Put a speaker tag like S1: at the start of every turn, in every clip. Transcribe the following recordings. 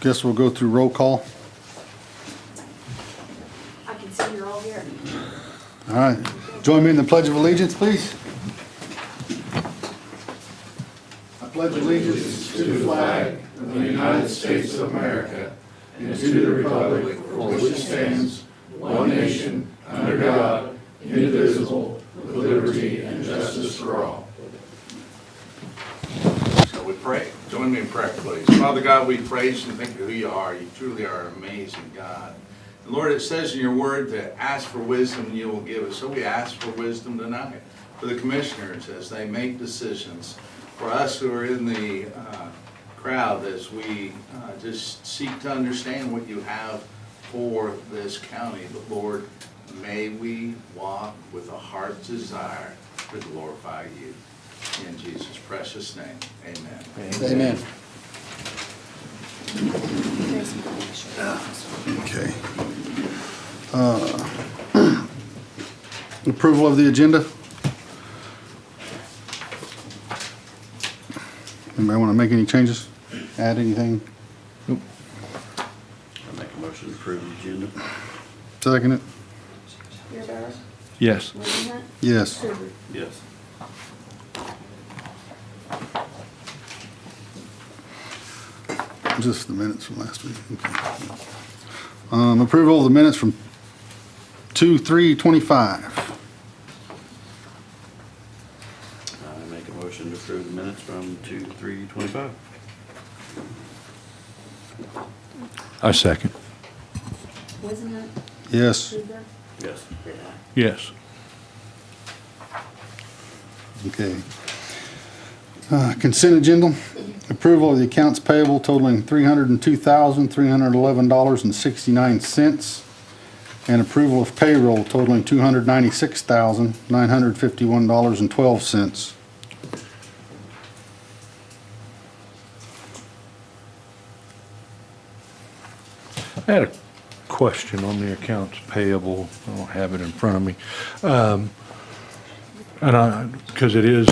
S1: Guess we'll go through roll call.
S2: I can see you're all here.
S1: All right, join me in the Pledge of Allegiance, please. I pledge allegiance to the flag.
S3: Shall we pray? Join me in prayer, please. Father God, we praise and thank you who you are. You truly are an amazing God. And Lord, it says in your word to ask for wisdom and you will give it. So we ask for wisdom tonight for the commissioners as they make decisions, for us who are in the uh, crowd as we uh, just seek to understand what you have for this county. But Lord, may we walk with a heart's desire to glorify you. In Jesus' precious name, amen.
S1: Amen. Okay. Uh, Approval of the agenda? Anybody want to make any changes? Add anything?
S4: I make a motion to approve the agenda.
S1: Second it?
S2: Beerbauer,
S5: Yes.
S2: Weidenhunt,
S1: Yes.
S2: Kruger.
S4: Yes.
S1: Just the minutes from last week. Okay. Um, Approval of the minutes from 2/3/25.
S4: I make a motion to approve the minutes from two, three, twenty-five.
S5: I second.
S2: Weidenhunt,
S1: Yes.
S2: Kruger,
S4: Yes.
S2: Beerbauer.
S5: Yes.
S1: Okay. Uh, Consent agenda, approval of the accounts payable totaling $302,311.69, and approval of payroll totaling $296,951.12.
S5: I had a question on the accounts payable. I don't have it in front of me. Um, And I, because it is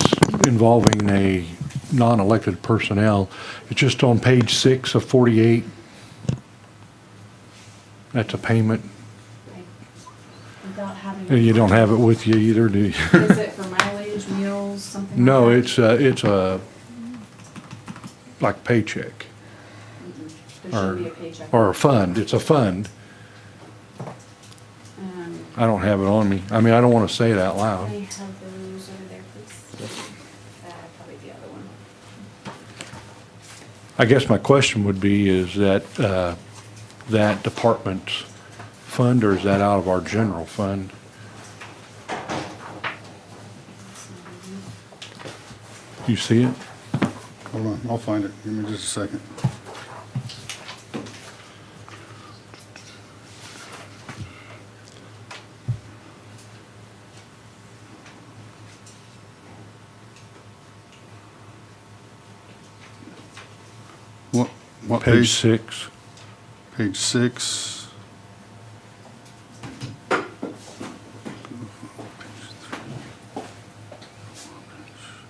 S5: involving a non-elected personnel, it's just on page six of 48. That's a payment.
S2: Right. Without having.
S5: And You don't have it with you either, do you?
S2: Is it for mileage, meals, something? like
S5: No,
S2: that?
S5: it's a, it's a, like paycheck
S2: There
S5: or,
S2: should be a paycheck.
S5: or a fund. It's a fund.
S2: Um,
S5: I don't have it on me. I mean, I don't want to say it out
S2: I
S5: loud.
S2: have those over there, please. Uh, probably the other one.
S5: I guess my question would be, is that, uh, that department's fund, or is that out of our general fund?
S2: It's not on here.
S5: You see it?
S1: Hold on, I'll find it. Give me just a second. What, what
S5: Page
S1: page?
S5: six.
S1: Page six.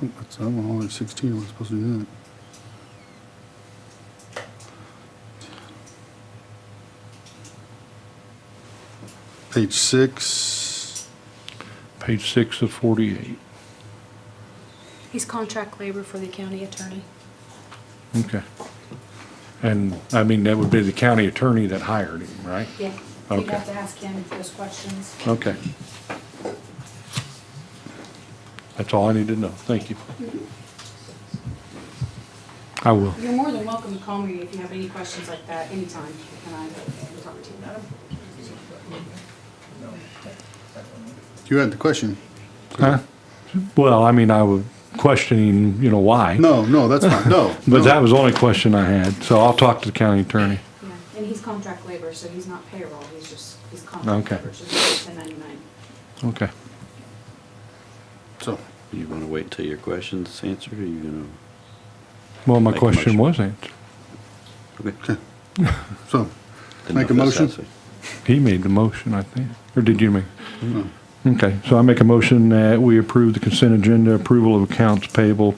S1: That's, I'm only sixteen, am I supposed to do that? Page six,
S5: Page six of forty-eight.
S6: He's contract labor for the county attorney.
S5: Okay. And, I mean, that would be the county attorney that hired him, right?
S2: Yeah, you'd
S5: Okay.
S2: have to ask him those questions.
S5: Okay. That's all I need to know. Thank you. I will.
S2: You're more than welcome to call me if you have any questions like that anytime, and I can talk to you about them.
S1: you had the question.
S5: Huh? Well, I mean, I was questioning, you know, why.
S1: No, no, that's fine, no.
S5: But
S1: no.
S5: that was the only question I had, so I'll talk to the county attorney.
S2: Yeah, and he's contract labor, so he's not payroll, he's just, he's contract
S5: Okay.
S2: labor, so he's ten ninety-nine.
S5: Okay.
S1: So,
S4: You wanna wait till your question's answered, or you gonna?
S5: Well, my
S4: Make a
S5: question
S4: motion.
S5: was answered.
S4: Okay.
S1: so,
S4: Then
S1: Make a
S4: if that's
S1: motion?
S4: that way.
S5: He made the motion, I think. Or did you make? Okay, so I make a motion that we approve the consent agenda, approval of accounts payable